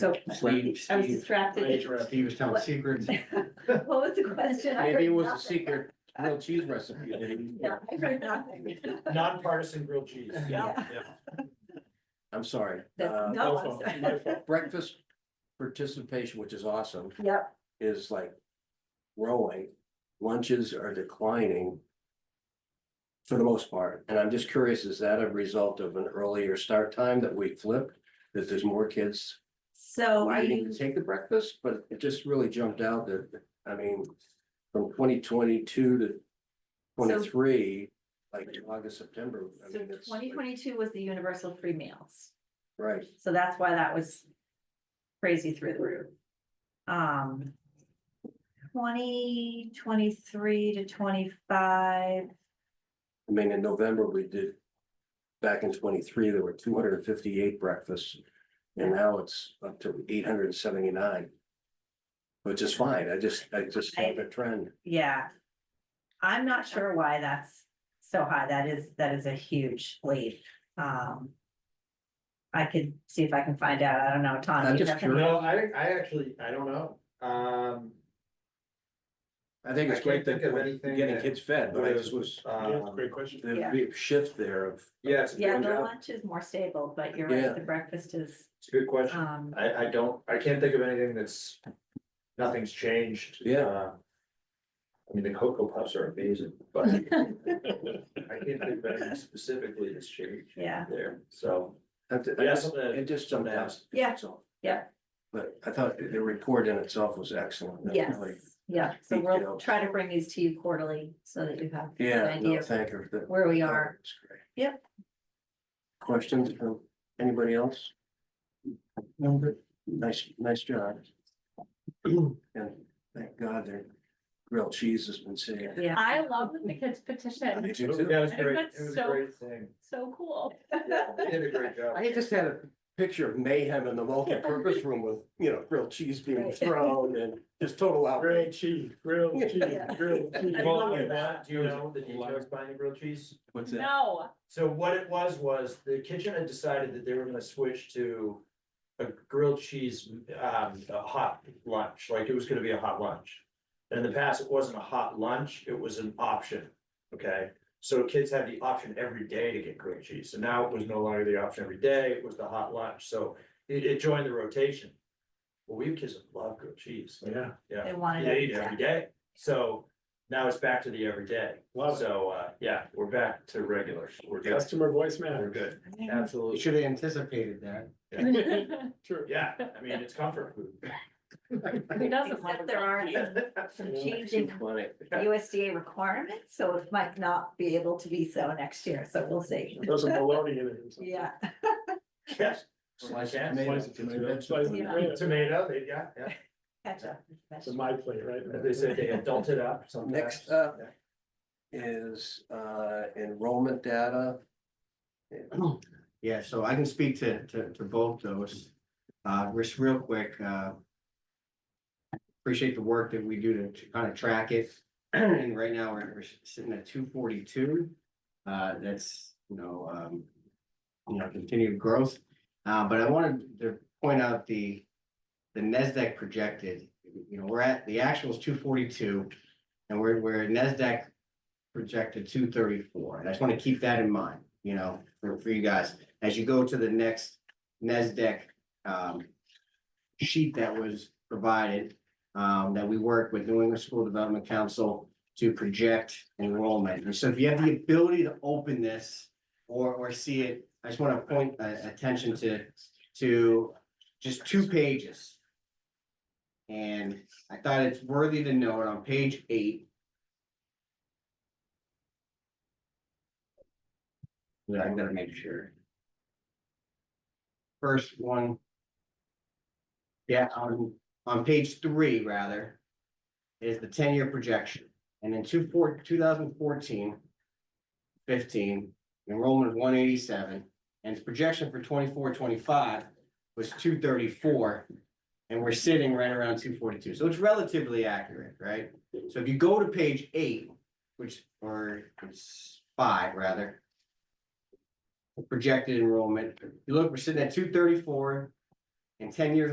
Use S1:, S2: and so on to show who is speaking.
S1: So
S2: Steve,
S1: I was
S2: Steve.
S1: distracted.
S2: He was telling secrets.
S1: What was the question? I
S2: Maybe
S1: heard
S2: it was a
S1: nothing.
S2: secret grilled cheese recipe. that he-
S1: Yeah, I heard nothing.
S2: Uh,
S3: Nonpartisan grilled cheese.
S1: Yeah.
S2: I'm sorry.
S1: That's-
S2: Uh,
S1: No,
S3: no
S1: I'm
S3: fault,
S1: sorry.
S3: no fault.
S2: Breakfast participation, which is awesome,
S1: Yep,
S2: is like rolling. Lunches are declining for the most part. And I'm just curious, is that a result of an earlier start time that we flipped? That there's more kids
S1: so are
S2: waiting
S1: you,
S2: to take the breakfast, but it just really jumped out that, I mean, from twenty twenty-two to twenty-three, like August, September. I
S1: so
S2: mean, it's
S1: twenty twenty-two was the universal free meals,
S2: Right.
S1: so that's why that was crazy through the roof. Um. Twenty twenty-three to twenty-five,
S2: I mean, in November, we did, back in twenty-three, there were two hundred and fifty-eight breakfasts. And now it's up to eight hundred and seventy-nine. Which is fine, I just, I just have a trend,
S1: yeah. I'm not sure why that's so high, that is, that is a huge leap, um. I could see if I can find out, I don't know, Tom.
S2: I'm
S1: you
S2: just
S1: have-
S2: curious.
S3: No, I, I actually, I don't know. Um,
S2: I think it's
S3: I can't
S2: great that
S3: think of
S2: we're
S3: anything
S2: getting
S3: that
S2: kids fed, but I just was,
S3: um,
S4: question.
S2: there'd be a shift there of.
S3: yeah, it's a
S1: Yeah,
S3: good,
S1: the
S2: Yeah.
S1: lunch is more stable, but you're
S2: Yeah.
S1: right, the breakfast is,
S3: it's a good question.
S1: um,
S3: I, I don't, I can't think of anything that's, nothing's changed.
S2: Yeah.
S3: Uh, I mean, the cocoa puffs are amazing, but I can't think of anything specifically that's changed
S1: yeah,
S3: there, so.
S2: I d- I
S3: Yeah,
S2: just-
S3: something that-
S2: It just jumped
S3: something
S2: out.
S3: else.
S1: Yeah.
S2: So-
S1: Yeah.
S2: But I thought the report in itself was excellent. That
S1: yes,
S2: really-
S1: yeah, so we'll
S2: details.
S1: try to bring these to you quarterly so that you have. an
S2: Yeah,
S1: idea
S2: no,
S1: of
S2: thank her. that-
S1: Where we are,
S2: Oh, That's great.
S1: Yep.
S2: Questions from anybody else? Nice, nice job. And thank God their grilled cheese has been saved.
S1: yeah,
S5: I love the kids
S2: I
S5: petition,
S2: do too.
S3: Yeah, it was
S5: I think
S3: great,
S5: that's
S3: it was a
S5: so-
S3: great thing.
S5: so cool.
S3: Yeah, they did a great job.
S2: I just had a picture of mayhem in the multi-purpose room with, you know, grilled cheese being
S1: Right.
S2: thrown and just total outrage.
S4: Grilled cheese, grilled cheese,
S1: Yeah.
S4: grilled cheese.
S1: I
S3: Well,
S1: love
S3: you
S1: it.
S3: want- do you know the details behind the grilled cheese?
S2: What's
S5: No,
S3: So what it was, was the kitchen had decided that they were gonna switch to a grilled cheese, um, a hot lunch, like it was gonna be a hot lunch. And in the past, it wasn't a hot lunch, it was an option, okay? So kids had the option every day to get grilled cheese, so now it was no longer the option every day, it was the hot lunch, so it, it joined the rotation. Well, we have kids that love grilled cheese,
S4: Yeah,
S3: yeah,
S1: they wanted
S3: they eat it
S1: it,
S3: every day, so now it's back to the every day.
S4: love it.
S3: So, uh, yeah, we're back to regular. We're good.
S4: Customer voice
S3: We're
S4: matters.
S3: good.
S1: yeah.
S3: Absolutely.
S2: should have anticipated that.
S5: who
S4: True.
S3: Yeah, I mean, it's comfort food.
S5: doesn't love
S1: Except
S5: a
S1: there are
S5: grilled cheese?
S1: some some changing USDA requirements, so it might not be able to be so next year, so we'll see,
S4: There's a bologna in it. or something.
S1: yeah.
S3: Yes.
S2: Slice of
S3: Yeah.
S2: tomato.
S4: Slice of tomato, slice of
S1: Yeah.
S4: tomato.
S3: Tomato, they- yeah, yeah.
S1: catch up.
S4: It's my plate, right?
S3: They said they adult it up sometimes.
S2: Next up. is uh enrollment data.
S6: Yeah, so I can speak to, to, to both those. Uh, just real quick, uh. Appreciate the work that we do to, to kind of track it. And right now, we're, we're sitting at two forty-two. Uh, that's, you know, um. You know, continued growth, uh, but I wanted to point out the. The NASDAQ projected, you know, we're at, the actual is two forty-two. And we're, we're NASDAQ projected two thirty-four. And I just want to keep that in mind, you know, for, for you guys as you go to the next NASDAQ um, sheet that was provided, um, that we work with New England School Development Council to project enrollment. And so if you have the ability to open this or, or see it, I just want to point uh, attention to, to just two pages. And I thought it's worthy to note on page eight. Yeah, I gotta make sure first one. Yeah, on, on page three, rather, is the ten-year projection. And in two four, two thousand fourteen, fifteen, enrollment of one eighty-seven, and its projection for 24, 25 was two thirty-four. And we're sitting right around two forty-two, so it's relatively accurate, right? So if you go to page eight, which, or it's five, rather. Projected enrollment, you look, we're sitting at two thirty-four, and ten years